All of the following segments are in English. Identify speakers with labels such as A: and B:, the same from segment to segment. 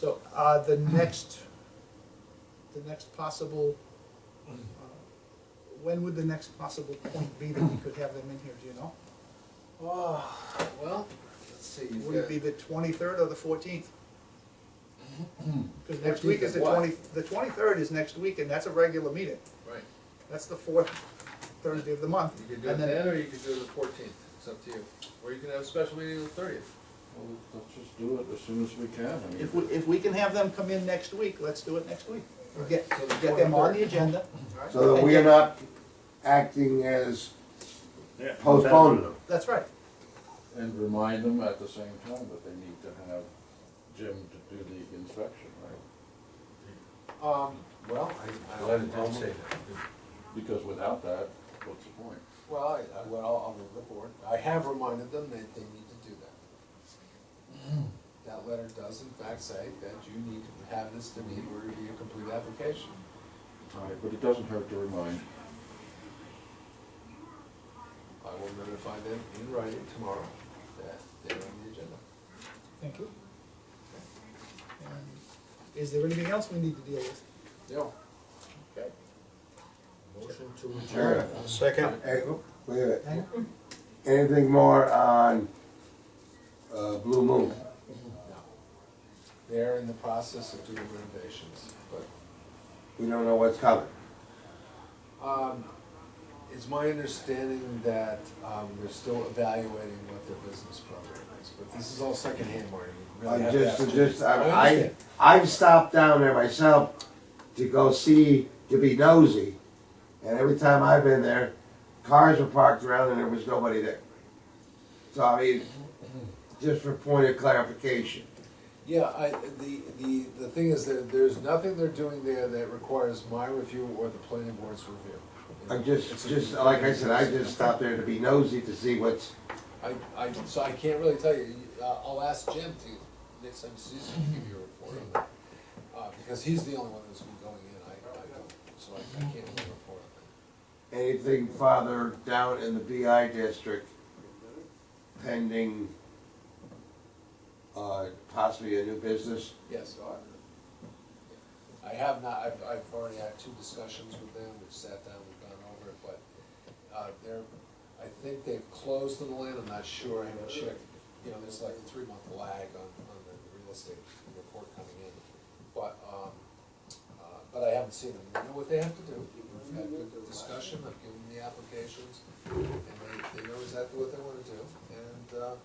A: So, uh, the next, the next possible, uh, when would the next possible point be that we could have them in here, do you know?
B: Oh, well, let's see, you've
A: Would it
B: got,
A: be the twenty-third or the fourteenth? Cause next week is the
B: 14th of
A: twenty, the twenty-third is next week, and that's a regular meeting,
B: right,
A: that's the fourth Thursday of the month.
B: you could do it
A: And then-
B: then, or you could do it the fourteenth, it's up to you. Or you can have a special meeting on the thirtieth.
C: Well, let's just do it as soon as we can. I mean,
A: If we, if we can have them come in next week, let's do it next week. We'll Get,
B: So the
A: get them on the
B: 23rd.
A: agenda,
D: So that we are not acting as,
E: Yeah,
D: Postpone.
E: them.
A: that's right.
C: And remind them at the same time that they need to have Jim to do the inspection, right?
B: Um, well,
F: I'm glad it didn't say that.
C: Because without that, what's the point?
F: Well, I, I- well, I'll move the board. I have reminded them that they need to do that.
B: Mm.
F: That letter does in fact say that you need to have this to be, or be a complete application.
C: Right, but it doesn't hurt to remind.
F: I will notify them in writing tomorrow that they're on the agenda.
A: Thank you. And Is there anything else we need to deal with?
F: Yeah.
A: Okay.
F: Motion to
D: Sure.
E: Second.
D: eh, oh, wait a minute.
A: Hang on.
D: anything more on, uh, Blue Moon?
F: They're in the process of doing renovations, but,
D: We don't know what's coming.
F: um, it's my understanding that, um, they're still evaluating what their business program is, but this is all secondhand, Marty. We really
D: I
F: have to ask
D: just,
F: you.
D: just, I,
F: I
D: I,
F: understand.
D: I've stopped down there myself to go see, to be nosy. And every time I've been there, cars were parked around and there was nobody there. So I mean, just for point of clarification.
F: Yeah, I, the, the, the thing is that there's nothing they're doing there that requires my review or the planning board's review.
D: I just, just, like I said, I just stopped there to be nosy to see what's,
F: I, I, so I can't really tell you, Uh, I'll ask Jim to, next time he sees you, to give you a report on that. Uh, because he's the only one that's been going in, I, I don't, so I, I can't really report on that.
D: anything farther down in the BI district pending, uh, possibly a new business.
F: Yes, I, I have not, I've, I've already had two discussions with them, we've sat down, we've gone over it, but, uh, they're, I think they've closed on the land, I'm not sure, I haven't checked. You know, there's like a three-month lag on, on the real estate report coming in, but, um, uh, but I haven't seen them, we know what they have to do. We've had good discussion, I've given them the applications, and they, they know exactly what they wanna do, and, uh,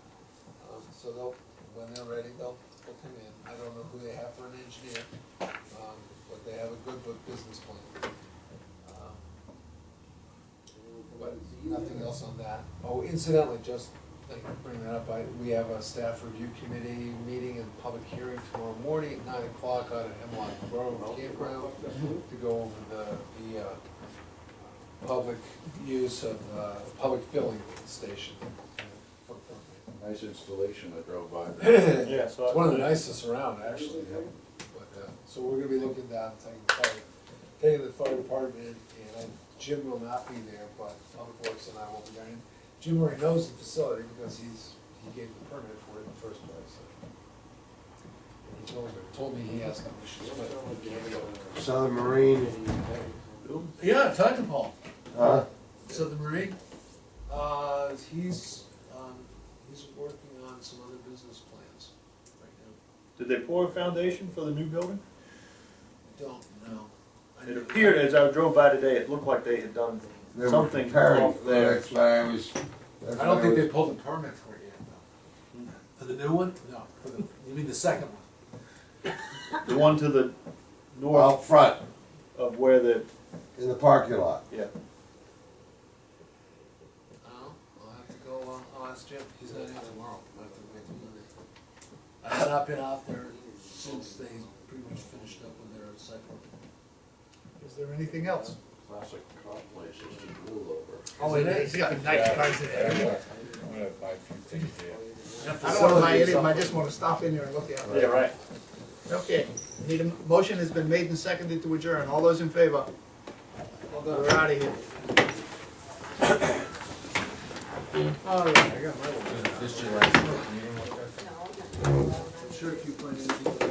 F: um, so they'll, when they're ready, they'll, they'll come in. I don't know who they have for an engineer, um, but they have a good book business plan. Um, But nothing else on that. Oh, incidentally, just like bring that up, I, we have a staff review committee meeting and public hearing tomorrow morning at nine o'clock out at Hemlock Grove Campground to go over the, the, uh, public use of, uh, public filling station.
C: Nice installation I drove by.
E: Yeah, so.
F: It's one of the nicest around, actually, but, uh, so we're gonna be looking down, taking the fire, taking the fire department, and I- Jim will not be there, but Public Works and I will be there. And Jim already knows the facility because he's, he gave the permit for it in the first place. so. And He told, me- told me he has no issues with it.
D: Southern Marine, uh,
B: Yeah, talk to Paul.
D: huh?
B: So the Marine?
F: Uh, he's, um, he's working on some other business plans right now.
E: Did they pour a foundation for the new building?
F: I Don't know. I
E: It
F: mean,
E: appeared, as I drove by today, it looked like they had done
D: They were
E: something
D: preparing.
E: off there.
D: That's why I was. that's
F: I don't
D: why
F: think
D: was-
F: they pulled the permit for it yet, though. For the new one? No, for the, you mean the second one?
E: The one to the
D: Well,
E: north
D: out front,
E: of where the,
D: in the parking lot.
E: yeah.
F: Oh, I'll have to go, uh, I'll ask Jim, he's not in tomorrow, I'll have to wait till Monday. I've not been out there since they pretty much finished up with their site work.
A: Is there anything else?
C: Classic cop places to rule over.
A: Oh, it is, yeah, nice cars in there.
C: I'm gonna buy a few things there.
A: I don't wanna buy any of them, I just wanna stop in there and look at them.
E: right.
A: Okay, need a, motion has been made and seconded to adjourn, all those in favor? We're out of here.
F: All right, I got my one.
B: This
F: I'm sure if you find anything.